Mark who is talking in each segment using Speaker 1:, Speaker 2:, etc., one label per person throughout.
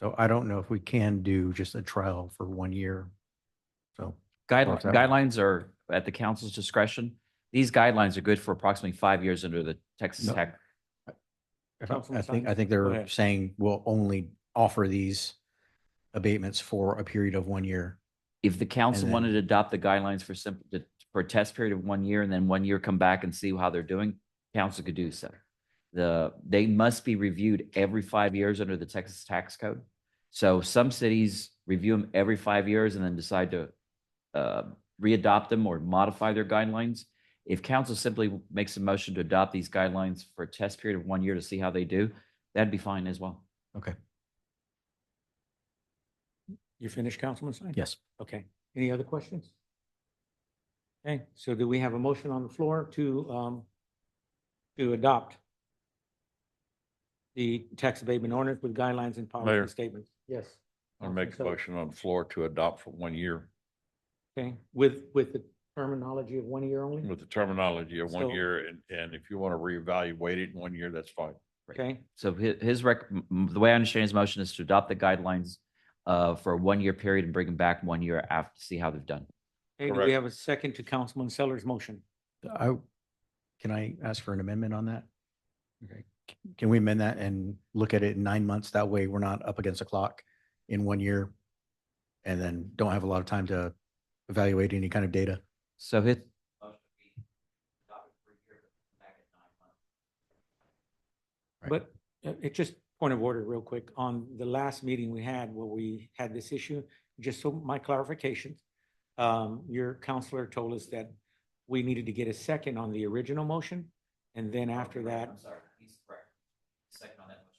Speaker 1: So I don't know if we can do just a trial for one year. So,
Speaker 2: Guidelines,
Speaker 1: Okay.
Speaker 2: guidelines are at the council's discretion. These guidelines are good for approximately five years under the Texas
Speaker 1: No.
Speaker 2: Tech.
Speaker 1: I don't-
Speaker 3: Councilman
Speaker 1: I think, I
Speaker 3: Simon,
Speaker 1: think
Speaker 3: go
Speaker 1: they're
Speaker 3: ahead.
Speaker 1: saying we'll only offer these abatements for a period of one year.
Speaker 2: If the council
Speaker 1: then-
Speaker 2: wanted to adopt the guidelines for simple, for a test period of one year and then one year come back and see how they're doing, council could do so. The, they must be reviewed every five years under the Texas tax code. So some cities review them every five years and then decide to uh, readopt them or modify their guidelines. If council simply makes a motion to adopt these guidelines for a test period of one year to see how they do, that'd be fine as well.
Speaker 3: You finished, Councilman Simon?
Speaker 1: Yes.
Speaker 3: Okay. Any other questions? Okay, so do we have a motion on the floor to, um, to adopt the tax abatement ordinance with guidelines and policy
Speaker 4: Mayor.
Speaker 3: and statements? Yes.
Speaker 4: I'll make a
Speaker 3: Councilman Sullivan.
Speaker 4: motion on the floor to adopt for one year
Speaker 3: Okay, with, with the terminology of one year only?
Speaker 4: with the terminology of
Speaker 3: So-
Speaker 4: one year. And, and if you want to reevaluate it in one year, that's fine.
Speaker 3: Okay,
Speaker 2: So his, his rec, m- m- the way I understand his motion is to adopt the guidelines uh, for a one-year period and bring them back one year after, see how they've done.
Speaker 3: Okay, do
Speaker 4: Correct.
Speaker 3: we have a second to Councilman Sellers' motion?
Speaker 1: I, can I ask for an amendment on that? Okay. Can we amend that and look at it in nine months? That way we're not up against the clock in one year. And then don't have a lot of time to evaluate any kind of data.
Speaker 2: So his.
Speaker 1: Right.
Speaker 3: But uh, it just, point of order real quick, on the last meeting we had where we had this issue, just so my clarification. Um, your counselor told us that we needed to get a second on the original motion. And
Speaker 1: Oh,
Speaker 3: then after that,
Speaker 2: sorry, he's correct. Second on that motion.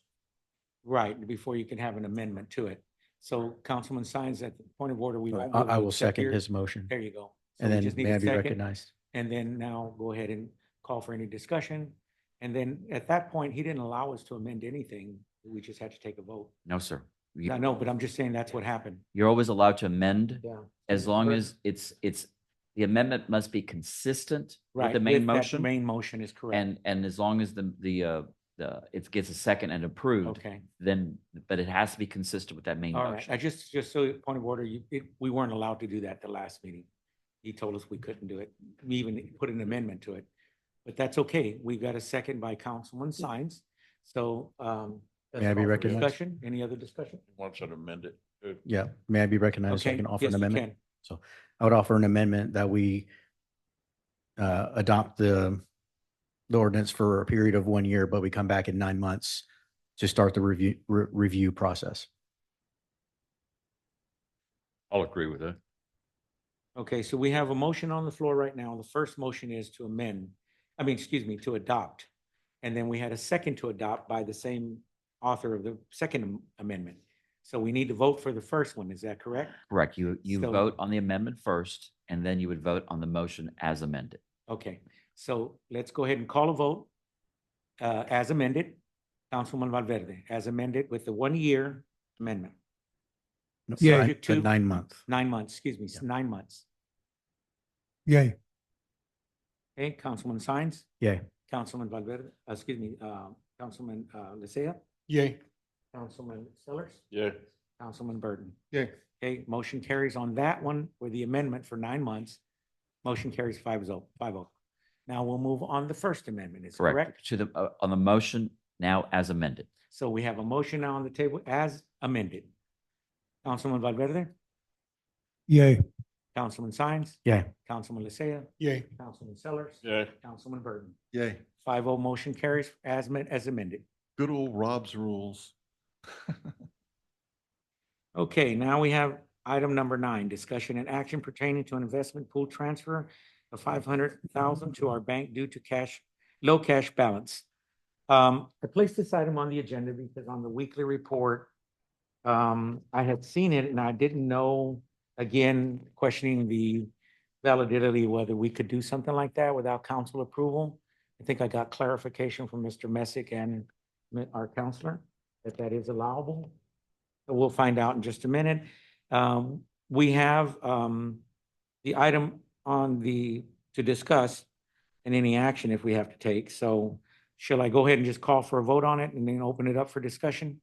Speaker 3: right, before you can have an amendment to it. So Councilman Sines, at the point of order, we.
Speaker 1: I,
Speaker 3: won't be able
Speaker 1: I
Speaker 3: to
Speaker 1: will
Speaker 3: accept
Speaker 1: second
Speaker 3: your-
Speaker 1: his motion
Speaker 3: There you go. So
Speaker 1: and
Speaker 3: we
Speaker 1: then
Speaker 3: just need
Speaker 1: may
Speaker 3: a
Speaker 1: I be
Speaker 3: second.
Speaker 1: recognized?
Speaker 3: And then now go ahead and call for any discussion. And then at that point, he didn't allow us to amend anything. We just had to take a vote.
Speaker 2: No, sir. You-
Speaker 3: I know, but I'm just saying that's what happened.
Speaker 2: You're always allowed to amend
Speaker 3: Yeah.
Speaker 2: as long
Speaker 3: Correct.
Speaker 2: as it's, it's, the amendment must be consistent with
Speaker 3: Right.
Speaker 2: the main
Speaker 3: with that
Speaker 2: motion.
Speaker 3: Main motion is correct.
Speaker 2: And, and as long as the, the, uh, the, it gets a second and approved,
Speaker 3: Okay,
Speaker 2: then, but it has to be consistent with that main
Speaker 3: all right.
Speaker 2: motion.
Speaker 3: I just, just so point of order, you, it, we weren't allowed to do that the last meeting. He told us we couldn't do it. We even put an amendment to it. But that's okay. We got a second by Councilman Sines. So, um.
Speaker 1: May I be
Speaker 3: that's all for
Speaker 1: recognized?
Speaker 3: Discussion? Any other discussion?
Speaker 4: Once it amended. it-
Speaker 1: Yeah, may I be recognized? so I
Speaker 3: Okay.
Speaker 1: can offer
Speaker 3: yes,
Speaker 1: an
Speaker 3: you
Speaker 1: amendment.
Speaker 3: can.
Speaker 1: I would offer an amendment that we uh, adopt the the ordinance for a period of one year, but we come back in nine months to start the review, re- review process.
Speaker 4: I'll agree with that.
Speaker 3: Okay, so we have a motion on the floor right now. The first motion is to amend, I mean, excuse me, to adopt. And then we had a second to adopt by the same author of the second am- amendment. So we need to vote for the first one, is that correct?
Speaker 2: Correct. You, you
Speaker 3: So-
Speaker 2: vote on the amendment first, and then you would vote on the motion as amended.
Speaker 3: Okay, so let's go ahead and call a vote. Uh, as amended, Councilman Valverde, as amended with the one-year amendment,
Speaker 1: No,
Speaker 3: Yeah.
Speaker 1: nine-
Speaker 3: Subject to-
Speaker 1: the Nine month.
Speaker 3: nine months, excuse me, nine months.
Speaker 1: Yay.
Speaker 3: Okay, Councilman Sines?
Speaker 1: Yay.
Speaker 3: Councilman Valverde, uh, excuse me, uh, Councilman, uh, Lisea?
Speaker 1: Yay.
Speaker 3: Councilman Sellers?
Speaker 4: Yeah.
Speaker 3: Councilman Burton.
Speaker 4: Yeah.
Speaker 3: Okay, motion carries on that one with the amendment for nine months. Motion carries five oh, five oh. Now we'll move on the First Amendment, is correct?
Speaker 2: To the, uh, on the motion now as amended.
Speaker 3: So we have a motion now on the table as amended. Councilman Valverde,
Speaker 1: Yay.
Speaker 3: Councilman Sines.
Speaker 1: Yay.
Speaker 3: Councilman Lisea,
Speaker 1: Yay.
Speaker 3: Councilman Sellers.
Speaker 4: Yeah.
Speaker 3: Councilman Burton.
Speaker 4: Yay.
Speaker 3: Five oh, motion carries as men, as amended.
Speaker 4: Good old Rob's rules.
Speaker 3: Okay, now we have item number nine, discussion and action pertaining to an investment pool transfer of five hundred thousand to our bank due to cash, low cash balance. Um, I placed this item on the agenda because on the weekly report, um, I had seen it and I didn't know, again, questioning the validity, whether we could do something like that without council approval. I think I got clarification from Mr. Messick and our counselor that that is allowable. We'll find out in just a minute. Um, we have, um, the item on the, to discuss and any action if we have to take. So shall I go ahead and just call for a vote on it and then open it up for discussion?